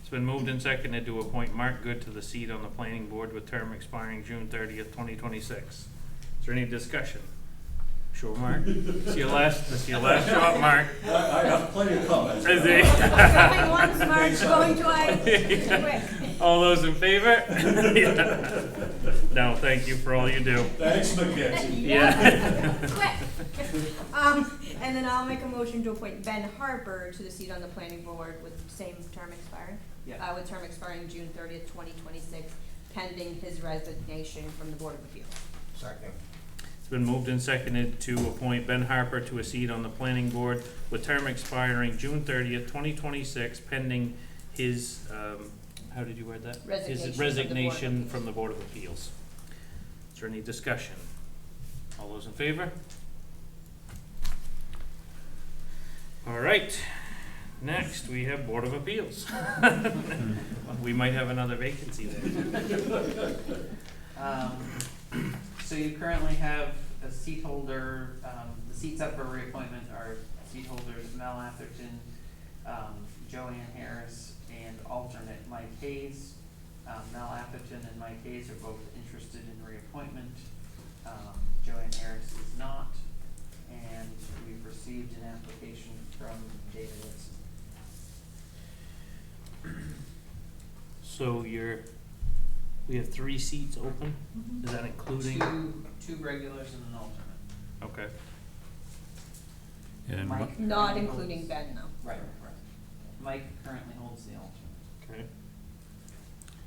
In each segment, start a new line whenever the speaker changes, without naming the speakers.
It's been moved and seconded to appoint Mark Good to the seat on the planning board with term expiring June thirtieth, twenty twenty-six. Is there any discussion? Sure, Mark? It's your last, it's your last shot, Mark.
I, I have plenty of comments.
Is he?
Coming once, March going twice. Quick.
All those in favor? No, thank you for all you do.
Thanks, McKenzie.
Yeah.
Quick. Um, and then I'll make a motion to appoint Ben Harper to the seat on the planning board with same term expiring.
Yeah.
Uh, with term expiring June thirtieth, twenty twenty-six, pending his resignation from the Board of Appeals.
Second.
It's been moved and seconded to appoint Ben Harper to a seat on the planning board with term expiring June thirtieth, twenty twenty-six, pending his, um, how did you word that?
Resignation
His
from the Board of
resignation
Appeals.
from the Board of Appeals. Is there any discussion? All those in favor? All right, next, we have Board of Appeals. We might have another vacancy there.
Um, So you currently have a seat holder, um, the seats up for reappointment are seat holders Mel Atherton, um, Joanne Harris, and alternate Mike Hayes. Um, Mel Atherton and Mike Hayes are both interested in reappointment. Um, Joanne Harris is not. And we've received an application from David Woodson.
So you're, we have three seats open? Is that including?
Two, two regulars and an alternate.
Okay.
And
Mike currently
Not
holds-
including Ben, though.
Right, right. Mike currently holds the alternate.
Okay.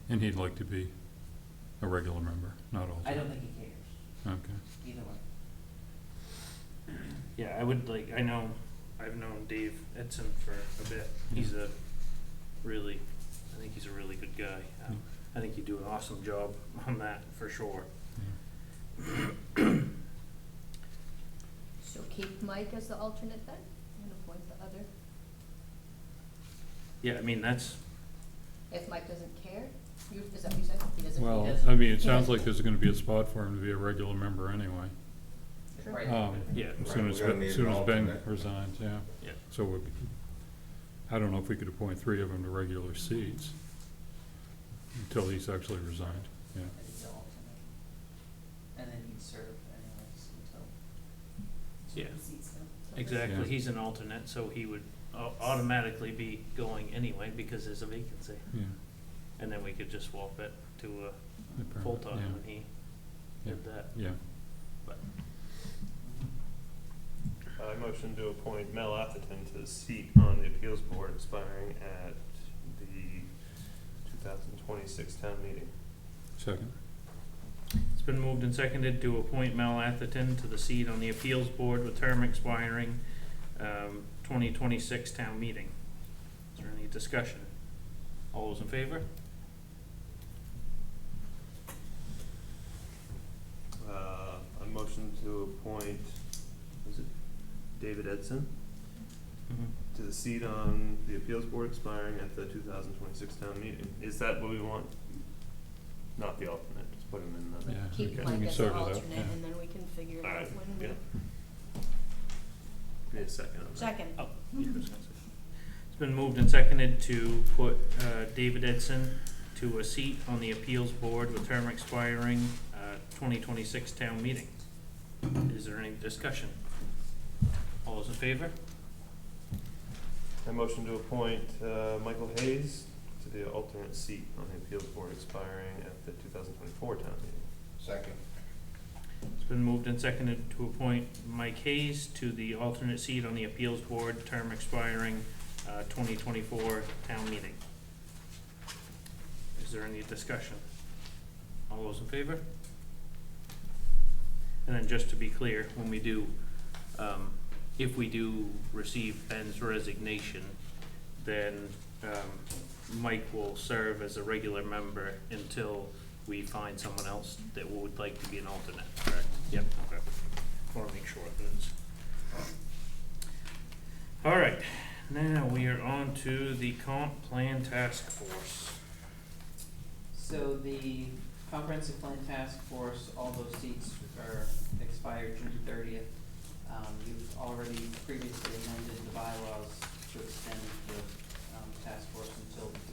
And he'd like to be a regular member, not
I
alternate.
don't think he cares,
Okay.
either way.
Yeah, I would like, I know, Mm-hmm. I've known Dave Edson for a bit. He's a really, I think he's a really good guy. Um, I think you do an awesome job on that, for sure.
So keep Mike as the alternate then, and appoint the other,
Yeah, I mean, that's,
if Mike doesn't care, you, is that what you said? He doesn't, he
Well,
doesn't.
I mean, it sounds like there's gonna be a spot for him to be a regular member anyway.
Sure.
Right.
Um,
yeah,
As Soon
Right,
as,
we're gonna
Ben-
need
soon
an
as Ben
alternate.
resigns, yeah.
Yeah.
So we, I don't know if we could appoint three of them to regular seats until he's actually resigned, yeah.
As his alternate. And then he'd serve anyways until.
Yeah.
the seats go.
exactly.
Yeah.
He's an alternate, so he would au- automatically be going anyway because there's a vacancy.
Yeah.
And then we could just swap it to
the
a
permanent,
full-time when he
Yeah.
did that.
Yeah,
Mm-hmm.
I motion to appoint Mel Atherton to the seat on the appeals board expiring at the two thousand twenty-six town meeting.
second,
It's been moved and seconded to appoint Mel Atherton to the seat on the appeals board with term expiring um, 2026 town meeting. Is there any discussion? All those in favor?
Uh, I motion to appoint, is it David Edson, to the seat on the appeals board expiring at the two thousand twenty-six town meeting. Is that what we want? Not the alternate, just put him in the.
yeah. we
Keep
can- we
Mike
can
as
sort
the
it out,
alternate,
yeah.
and then we can figure it out
Alright,
when we.
yeah. Give me a second on that.
Second.
Oh, yeah, that's what I said. It's been moved and seconded to put uh, David Edson to a seat on the appeals board with term expiring uh, 2026 town meeting. Is there any discussion? All those in favor?
I motion to appoint uh, Michael Hayes to the alternate seat on the appeals board expiring at the 2024 town meeting.
Second.
It's been moved and seconded to appoint Mike Hayes to the alternate seat on the appeals board, term expiring uh, 2024 town meeting. Is there any discussion? All those in favor? And then just to be clear, when we do, um, if we do receive Ben's resignation, then um, Mike will serve as a regular member until we find someone else that would like to be an alternate, correct? Yep. Okay. Want to make sure that it's. All right, now we are on to the comp plan task force.
So the comprehensive plan task force, all those seats are expired June thirtieth. Um, you've already previously amended the bylaws to extend the, um, task force until